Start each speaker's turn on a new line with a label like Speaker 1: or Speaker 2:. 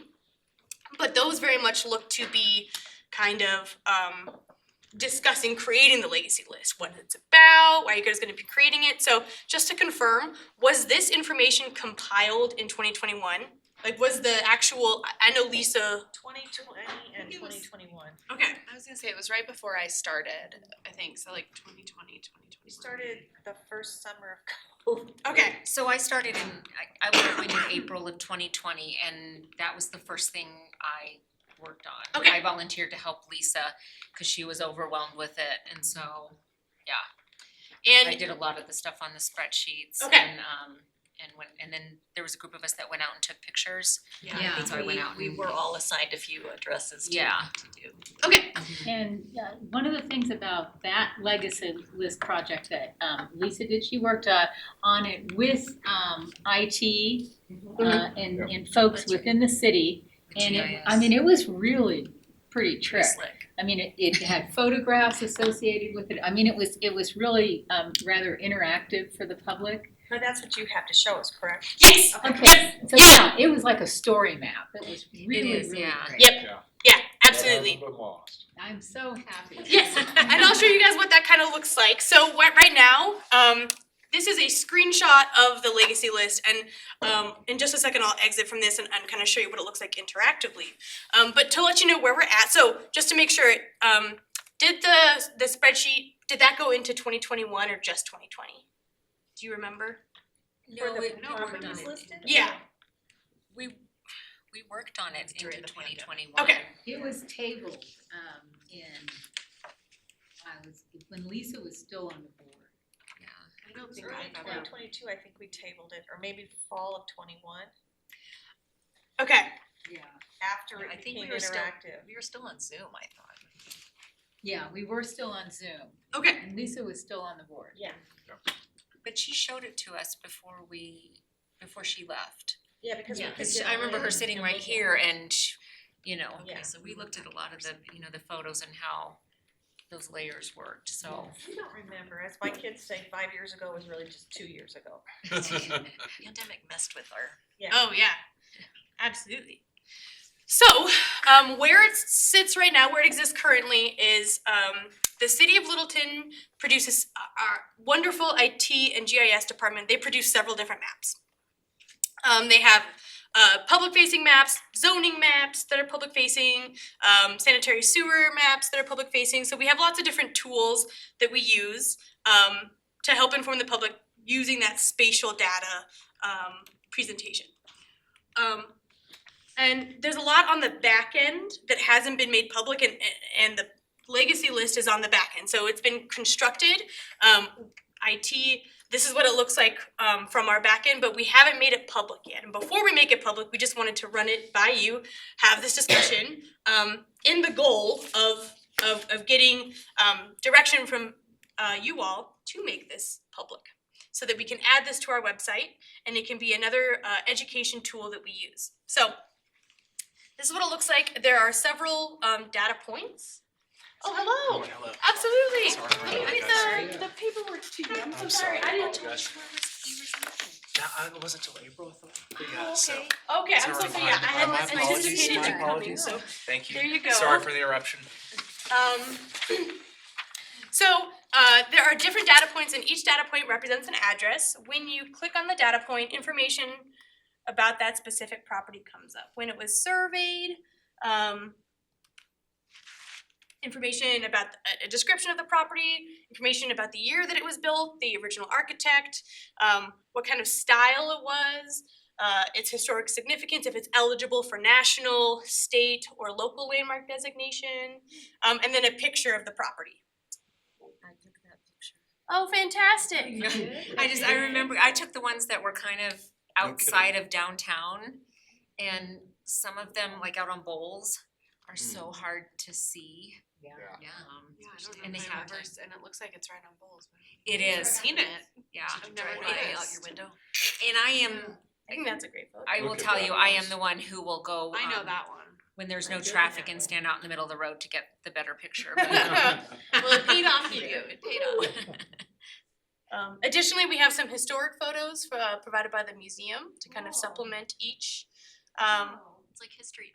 Speaker 1: but those very much look to be kind of um discussing creating the legacy list, what it's about, why you guys are gonna be creating it. So just to confirm, was this information compiled in twenty twenty one? Like was the actual, I- I know Lisa,
Speaker 2: Twenty twenty and
Speaker 3: It was-
Speaker 2: twenty twenty one.
Speaker 1: okay,
Speaker 3: I was gonna say, it was right before I started, I think, so like 2020, 2021.
Speaker 2: We started the first summer of
Speaker 1: okay,
Speaker 4: So I started in, I, I went when in April of twenty twenty, and that was the first thing I worked on.
Speaker 1: Okay.
Speaker 4: I volunteered to help Lisa, cause she was overwhelmed with it, and so I
Speaker 1: and
Speaker 4: did a lot of the stuff on the spreadsheets
Speaker 1: Okay.
Speaker 4: and, um, and when, and then there was a group of us that went out and took pictures.
Speaker 5: Yeah.
Speaker 4: So I went out
Speaker 2: We
Speaker 4: and-
Speaker 2: were all assigned a few addresses to
Speaker 4: Yeah.
Speaker 2: to do.
Speaker 1: okay,
Speaker 5: And uh, one of the things about that legacy list project that um, Lisa did, she worked uh, on it with um, IT uh, and, and folks within the city. And it, I mean, it was really pretty trick.
Speaker 2: Slick.
Speaker 5: I mean, it, it had photographs associated with it. I mean, it was it was really um, rather interactive for the public.
Speaker 2: But that's what you have to show us, correct?
Speaker 1: yes,
Speaker 5: Okay, so yeah, it was like a story map. It was really
Speaker 4: is,
Speaker 5: really
Speaker 4: yeah.
Speaker 5: great.
Speaker 1: Yep. yeah, absolutely.
Speaker 6: But lost.
Speaker 5: I'm so happy.
Speaker 1: Yes, and I'll show you guys what that kind of looks like. So what right now, um, this is a screenshot of the legacy list, and um, in just a second, I'll exit from this and, and kind of show you what it looks like interactively. Um, but to let you know where we're at, so just to make sure, um, did the the spreadsheet did that go into 2021 or just 2020? Do you remember?
Speaker 4: No,
Speaker 2: Were the
Speaker 4: we, no, we worked on
Speaker 2: properties
Speaker 4: it,
Speaker 2: listed?
Speaker 1: Yeah.
Speaker 4: we, we worked on it
Speaker 2: During
Speaker 4: into
Speaker 2: the
Speaker 4: twenty
Speaker 2: pandemic.
Speaker 4: twenty one.
Speaker 1: Okay.
Speaker 5: It was tabled, um, in, I was, when Lisa was still on the board.
Speaker 4: Yeah,
Speaker 2: I know it was
Speaker 4: think I
Speaker 2: early
Speaker 4: have
Speaker 2: twenty twenty two, I think we tabled it, or maybe fall of twenty one,
Speaker 1: Okay,
Speaker 5: Yeah.
Speaker 2: after
Speaker 3: I
Speaker 2: it
Speaker 3: think we
Speaker 2: became
Speaker 3: were still-
Speaker 2: interactive.
Speaker 3: We were still on Zoom, I thought.
Speaker 5: Yeah, we were still on Zoom,
Speaker 1: okay.
Speaker 5: and Lisa was still on the board.
Speaker 2: Yeah,
Speaker 4: but she showed it to us before we, before she left.
Speaker 2: yeah, because we
Speaker 4: Yeah,
Speaker 2: could
Speaker 4: cause
Speaker 2: get
Speaker 4: I remember
Speaker 2: in
Speaker 4: her sitting
Speaker 2: and
Speaker 4: right
Speaker 2: look at
Speaker 4: here and, sh- you know,
Speaker 2: Yeah.
Speaker 4: okay, so we looked at a lot of the, you know, the photos and how those layers worked, so.
Speaker 2: it. We don't remember, as my kids say, five years ago was really just two years ago.
Speaker 3: Pandemic messed with our
Speaker 1: Oh yeah, absolutely. So, um, where it sits right now, where it exists currently, is um, the city of Littleton produces uh, our wonderful IT and GIS department. They produce several different maps. Um, they have uh, public-facing maps, zoning maps that are public-facing, um, sanitary sewer maps that are public-facing. So we have lots of different tools that we use um, to help inform the public using that spatial data um, presentation. Um, and there's a lot on the back end that hasn't been made public and, and the legacy list is on the back end. So it's been constructed, um, IT, this is what it looks like, um, from our back end, but we haven't made it public yet. And before we make it public, we just wanted to run it by you, have this discussion, um, in the goal of, of, of getting, um, direction from, uh, you all to make this public. So that we can add this to our website and it can be another uh, education tool that we use. So this is what it looks like. There are several um, data points. Oh, hello. Absolutely.
Speaker 7: Sorry.
Speaker 1: Let me
Speaker 7: Sorry.
Speaker 1: get the, the paperwork to you. I'm so
Speaker 7: I'm
Speaker 1: sorry.
Speaker 7: sorry.
Speaker 1: I didn't.
Speaker 7: Apologize. Nah, I wasn't till April, I thought. But yeah, so,
Speaker 1: Oh, Okay, I'm so
Speaker 7: Sorry,
Speaker 1: sorry. Yeah, I
Speaker 7: my-
Speaker 1: had
Speaker 7: my
Speaker 1: not
Speaker 7: apologies,
Speaker 1: anticipated
Speaker 7: my
Speaker 1: that coming.
Speaker 7: apologies.
Speaker 1: So
Speaker 7: thank you.
Speaker 1: there you go.
Speaker 7: Sorry for the eruption.
Speaker 1: Um, so, uh, there are different data points and each data point represents an address. When you click on the data point, information about that specific property comes up. When it was surveyed, um, information about a- a description of the property, information about the year that it was built, the original architect, um, what kind of style it was, uh, its historic significance, if it's eligible for national, state, or local landmark designation, um, and then a picture of the property.
Speaker 4: I took that picture.
Speaker 1: Oh, fantastic!
Speaker 4: I just, I remember, I took the ones that were kind of
Speaker 7: No kidding.
Speaker 4: outside of downtown. And some of them, like out on bowls, are so
Speaker 7: Hmm.
Speaker 4: hard to see.
Speaker 3: Yeah.
Speaker 6: Yeah.
Speaker 3: Yeah,
Speaker 4: Yeah.
Speaker 3: I
Speaker 4: Especially-
Speaker 3: don't
Speaker 4: And
Speaker 3: know
Speaker 4: they
Speaker 3: if I
Speaker 4: have,
Speaker 3: ever,
Speaker 4: like-
Speaker 3: s- and it looks like it's right on Bowles. but
Speaker 4: it is,
Speaker 3: Seen it.
Speaker 4: yeah.
Speaker 3: I've never
Speaker 4: it
Speaker 3: noticed it out
Speaker 4: is.
Speaker 3: your window.
Speaker 4: And I am,
Speaker 1: I think that's a great photo.
Speaker 4: I
Speaker 6: Look
Speaker 4: will
Speaker 6: at
Speaker 4: tell
Speaker 6: that
Speaker 4: you, I
Speaker 6: house.
Speaker 4: am the one who will go,
Speaker 3: I know
Speaker 4: um,
Speaker 3: that one.
Speaker 4: when there's
Speaker 3: I'm
Speaker 4: no
Speaker 3: doing it
Speaker 4: traffic
Speaker 3: that
Speaker 4: and
Speaker 3: way.
Speaker 4: stand out in the middle of the road to get the better picture. but-
Speaker 3: Well, it paid off for you, it paid off.
Speaker 1: Um, additionally, we have some historic photos uh, provided by the museum to kind of supplement each. Um,
Speaker 3: Oh. It's like history